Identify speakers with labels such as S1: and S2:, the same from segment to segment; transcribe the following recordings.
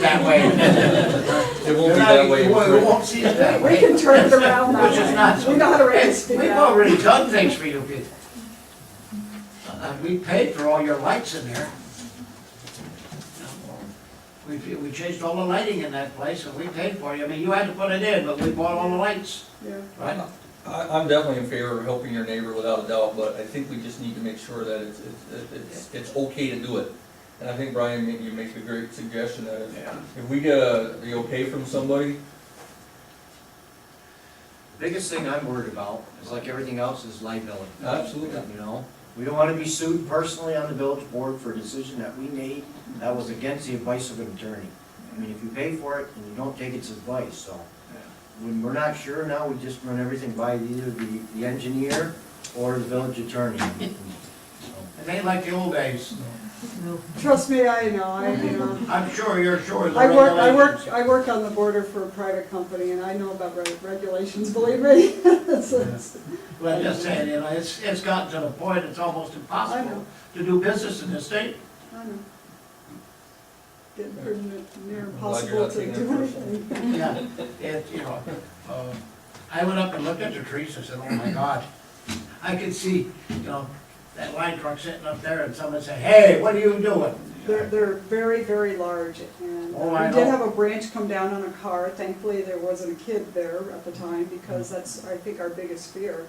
S1: that way.
S2: It won't be that way.
S3: You won't- you won't see it that
S4: We
S3: way.
S4: can turn it around now.
S3: Which is not-
S4: We know how to raise it
S3: We've
S4: now.
S3: already done things for you people. Uh, We paid for all your lights in there. We, we changed all the lighting in that place and we paid for you. I mean, you had to put it in, but we bought all the lights,
S4: Yeah.
S3: right?
S2: I, I'm definitely in favor of helping your neighbor without a doubt, but I think we just need to make sure that it's, it's, it's, it's okay to do it. And I think Brian, you make a great suggestion that if-
S3: Yeah.
S2: if we get a, the okay from somebody,
S5: Biggest thing I'm worried about is like everything else is liability.
S2: absolutely.
S5: You know, we don't want to be sued personally on the village board for a decision that we made that was against the advice of an attorney. I mean, if you pay for it and you don't take its advice, so. When we're not sure now, we just run everything by either the, the engineer or the village attorney.
S3: It ain't like the old days.
S4: Trust me, I know, I know.
S3: I'm sure you're sure of the
S4: I work,
S3: regulations.
S4: I work, I work on the border for a private company and I know about reg- regulations, believe me. It's- it's-
S3: But I'm just saying, you know, it's, it's gotten to the point, it's almost
S4: I know.
S3: impossible to do business in this state.
S4: I know. Getting pretty n- near
S2: I'm glad you're
S4: impossible
S2: not
S4: to
S2: taking it
S4: do
S2: personally.
S4: anything.
S3: Yeah, it, you know, um, I went up and looked at the trees and said, oh my God. I could see, you know, that line truck sitting up there and someone said, hey, what are you doing?
S4: They're, they're very, very large and
S3: Oh,
S4: uh,
S3: I
S4: we did
S3: know.
S4: have a branch come down on a car. Thankfully, there wasn't a kid there at the time because
S3: Mm.
S4: that's, I think, our biggest fear.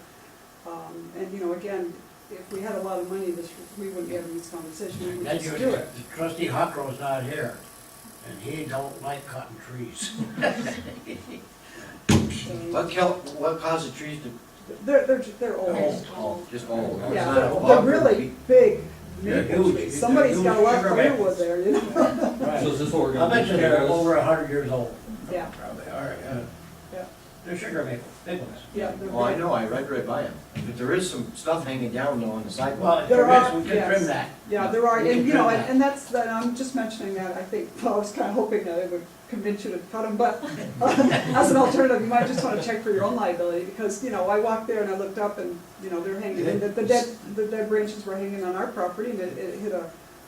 S4: Um, And, you know, again, if we had a lot of money, this, we wouldn't be having this conversation, we would
S3: Then
S4: just do
S3: you,
S4: it.
S3: trustee Huckrow's not here, and he don't like cutting trees.
S4: So,
S5: What kill, what caused the trees to,
S4: They're, they're, they're
S3: Old.
S4: old.
S5: just all?
S4: Yeah, they're really big.
S3: They're
S4: maple
S3: huge.
S4: trees. Somebody's got a lot of
S3: They're huge.
S4: firewood there, you know?
S2: So
S3: Right.
S2: is this what we're
S3: I
S2: gonna do?
S3: bet you they're over a hundred years old.
S4: Yeah,
S3: Probably are, yeah.
S4: Yeah.
S3: They're sugar maple, maples.
S4: yeah. they're
S3: Oh,
S5: Well, Oh, I
S4: big.
S5: know, I read right by them, but there is some stuff hanging down though on the sidewalk.
S3: Well, if
S4: There
S3: there is,
S4: are-
S3: we can
S4: yes.
S3: trim that.
S4: Yeah, there are,
S3: We can
S4: and you know,
S3: trim
S4: and and that's, that, I'm just mentioning that, I think, well, I was kind of hoping that it would convince you to cut them, but uh, as an alternative, you might just want to check for your own liability, because, you know, I walked there and I looked up and, you know, they're hanging, and the the dead, the dead branches were hanging on our property, and it, it hit a,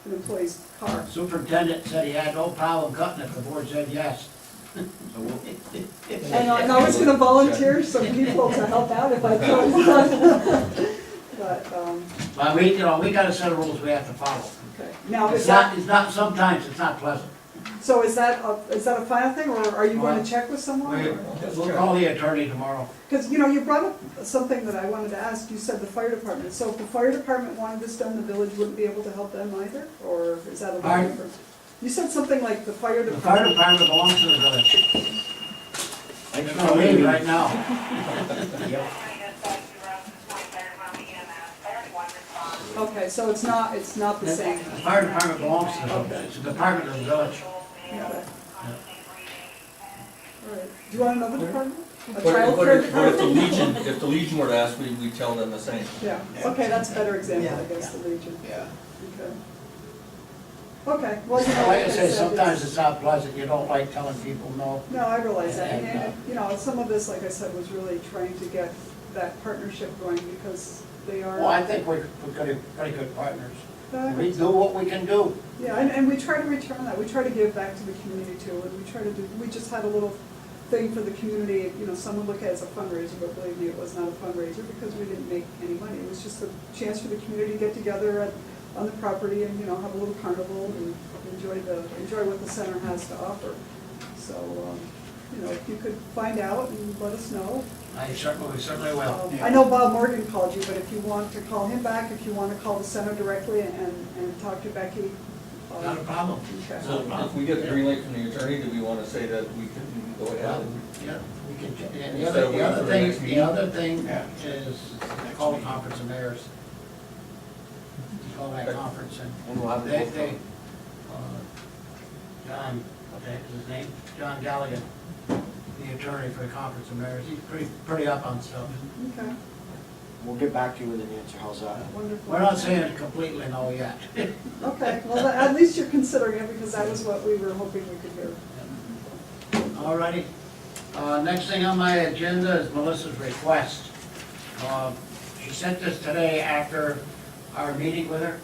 S4: an employee's car.
S3: Superintendent said he had no problem cutting it, the board said yes.
S5: So we'll-
S4: And I- and I was gonna volunteer some people to help out if I could. But, um,
S3: But we, you know, we got a set of rules we have to follow.
S4: okay, now, is
S3: It's
S4: that,
S3: not, it's not, sometimes it's not pleasant.
S4: so is that, a- is that a final thing, or are you going to check with someone?
S3: We-
S4: or-
S3: We'll call the attorney tomorrow.
S4: Because, you know, you brought up something that I wanted to ask, you said the fire department, so if the fire department wanted this done, the village wouldn't be able to help them either, or is that a little
S3: Pardon?
S4: different? You said something like the fire
S3: The fire
S4: department,
S3: department belongs to the village.
S5: I
S3: It's
S5: just
S3: gonna
S5: wanna
S3: leave
S5: leave.
S3: right now.
S5: Yep.
S4: okay, so it's not, it's not the
S3: The
S4: same.
S3: fire department belongs to the village. It's a department of the village.
S4: Yeah, but- all right. Do you want another department? A
S2: But if- but
S4: childcare
S2: if, but if the
S4: department?
S2: Legion, if the Legion were to ask, we, we tell them the same.
S4: Yeah, okay, that's a better example, I guess, the region,
S3: Yeah.
S4: okay. Okay, well, you know,
S3: Like I
S4: it's,
S3: say,
S4: uh,
S3: sometimes it's not pleasant. You don't like telling people no.
S4: No, I realize that, and,
S3: And, uh,
S4: and, you know, some of this, like I said, was really trying to get that partnership going, because they are.
S3: Well, I think we're, we're pretty, pretty good partners.
S4: Uh,
S3: We do what we can do.
S4: Yeah, and, and we try to return that, we try to give back to the community too, and we try to do, we just had a little thing for the community, you know, some would look at it as a fundraiser, but believe me, it was not a fundraiser, because we didn't make any money, it was just a chance for the community to get together at, on the property and, you know, have a little carnival and enjoy the, enjoy what the center has to offer. So, um, you know, if you could find out and let us know,
S3: I certainly, we certainly will.
S4: Um, I know Bob Morgan called you, but if you want to call him back, if you want to call the center directly and, and talk to Becky. uh,
S3: Not a problem.
S4: okay.
S2: So if we get the green light from the attorney, do we wanna say that we can go ahead? and-
S3: Yeah, we can, ch- and the
S2: Instead
S3: other,
S2: of
S3: the other
S2: waiting for the
S3: thing,
S2: next
S3: the
S2: meeting.
S3: other thing is call a conference of mayors. Call that conference and
S5: And we'll have
S3: they,
S5: it.
S3: they, uh, John, what the heck is his name? John Galligan, the attorney for the conference of mayors, he's pretty, pretty up on stuff.
S4: Okay,
S5: We'll get back to you with an answer, how's that?
S4: wonderful.
S3: We're not saying completely no yet.
S4: Okay, well, tha- at least you're considering it, because that was what we were hoping we could hear.
S3: All righty. Uh, Next thing on my agenda is Melissa's request. Uh, She sent this today after our meeting with her,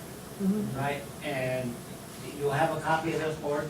S3: right? And you have a copy of this board?